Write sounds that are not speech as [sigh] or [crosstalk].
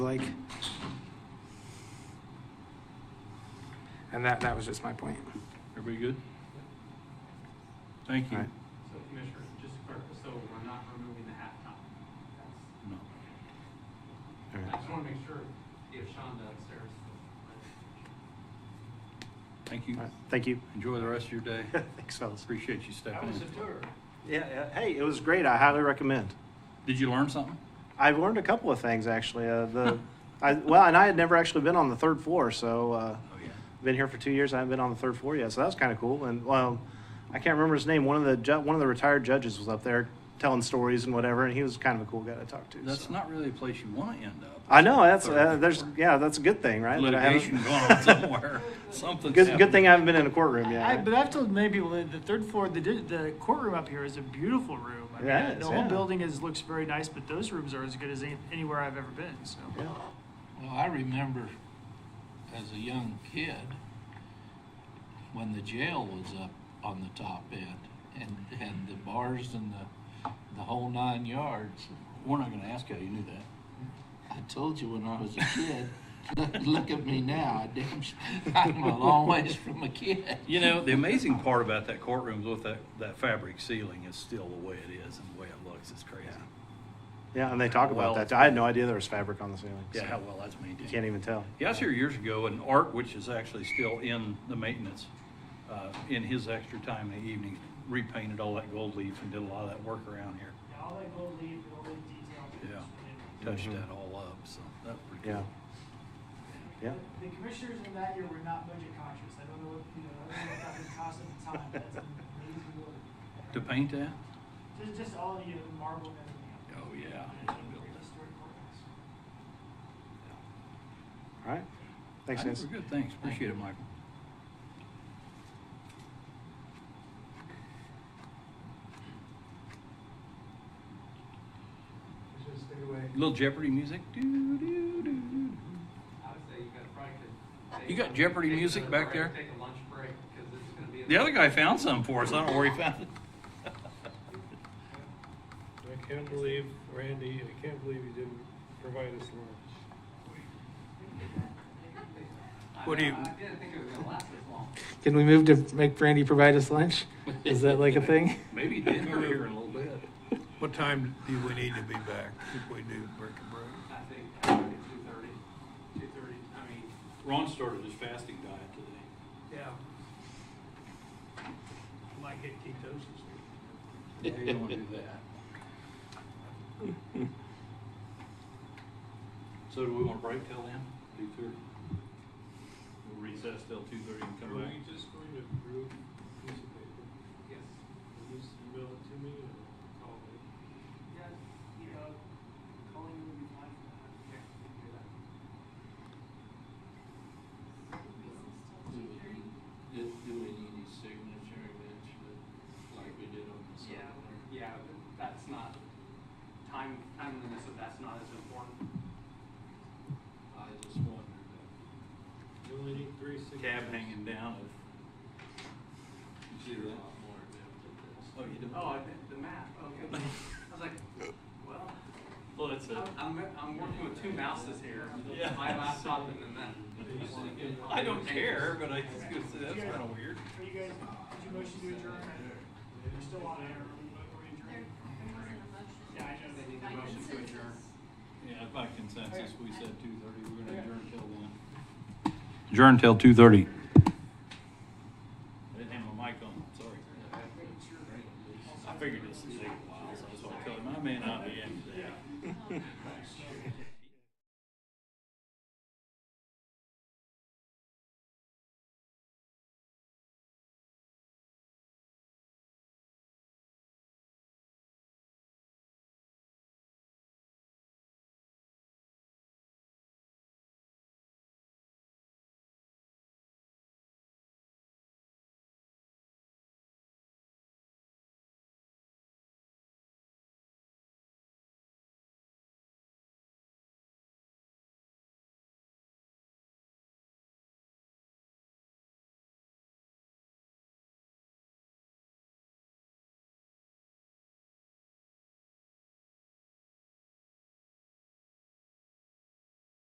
like. And that, that was just my point. Everybody good? Thank you. All right. So Commissioner, just to clarify, so we're not removing the halftime? That's- No. I just want to make sure if Shonda upstairs. Thank you. All right, Thank you. Enjoy the rest of your day. [laughs] Thanks, fellas. Appreciate you stepping in. tour. Yeah, yeah, hey, it was great. I highly recommend. Did you learn something? I've learned a couple of things actually. Uh, the, I, well, and I had never actually been on the third floor, so uh, Oh, yeah. been here for two years. I haven't been on the third floor yet, so that was kind of cool. And well, I can't remember his name. One of the ju- one of the retired judges was up there telling stories and whatever, and he was kind of a cool guy to talk to. That's so. not really a place you want to end up. I know that's uh, Third there's floor. yeah that's a good thing, right? that I haven't- [laughs] Litigation going on somewhere. Something's good good thing I happening. haven't been in a courtroom yet. I, right? but I've told many people that the third floor, the, di- the courtroom up here is a beautiful room. I mean, Yeah, it is, the whole yeah. building is looks very nice, but those rooms are as good as any, anywhere I've ever been. So yeah. Well, I remember as a young kid, when the jail was up on the top end and, and the bars and the, the whole nine yards. We're not going to ask how you knew that. I told you when I was a kid, [laughs] look, look at me now, I damn, [laughs] sh- I'm a long ways from a kid. You know, the amazing part about that courtroom is with that, that fabric ceiling is still the way it is and the way it looks. It's crazy. yeah, and they talk Well- about that. I had no idea there was fabric on the ceiling. Yeah, so how well that's you maintained. can't even tell. Yeah, I was here years ago, and Art, which is actually still in the maintenance, uh, in his extra time in the evening, repainted all that gold leaf and did a lot of that work around here. all that gold leaf, all the detail. Yeah, touched that all up, so that's pretty Yeah. cool. Yeah. The commissioners in that year were not budget conscious. I don't know what you know. I don't know what that would cost at the time. But that's an amazing building. To paint that? Just, just all of you, the marble and everything. Oh, yeah. Historic courthouse. All right. Thanks, I think guys. We're good, thanks, appreciate it, Michael. Little Jeopardy music? Doo, doo, doo, doo. I would say you got probably could. take You got a- Jeopardy take music another back break, there? Take a lunch break because this is going to be. The other guy found some for us, I don't know where he found it. I can't believe, Randy, I can't believe you didn't provide us lunch. What do you- I didn't think it was going to last this long. Can we move to make Brandy provide us lunch? Is that like a thing? Maybe he did, we're here in a little bit. What time do we need to be back if we do break a break? I think probably two thirty, two thirty, I mean, Ron started his fasting diet today. Yeah. Might get ketosis. Yeah, you don't wanna do that. So do we want to break till then? Two thirty? We'll recess till two thirty and Are we just going to brew a piece of paper? yes. Will you email it to me or call me? Yeah, you know, calling would be fine for that. Yeah, we can do that. Do, do we need a signature eventually, like we did on the Yeah, yeah, but that's not, time, timeliness of that's not as important. I just wondered. You only need three signatures. Cab hanging down. You did a lot more adept at this. Oh, you do? Oh, I did the math, okay. I was like, well, Well, that's it. I'm, I'm working with two mouses here, Yeah. my laptop and then that. I don't care, but I just gonna say that's kind of weird. Are you guys, did you motion to adjourn? You're still on air. Are we adjourned? Yeah, I know. They need a motion to adjourn. Yeah, by consensus, we said two thirty, we're gonna adjourn till one. Adjourn till two thirty.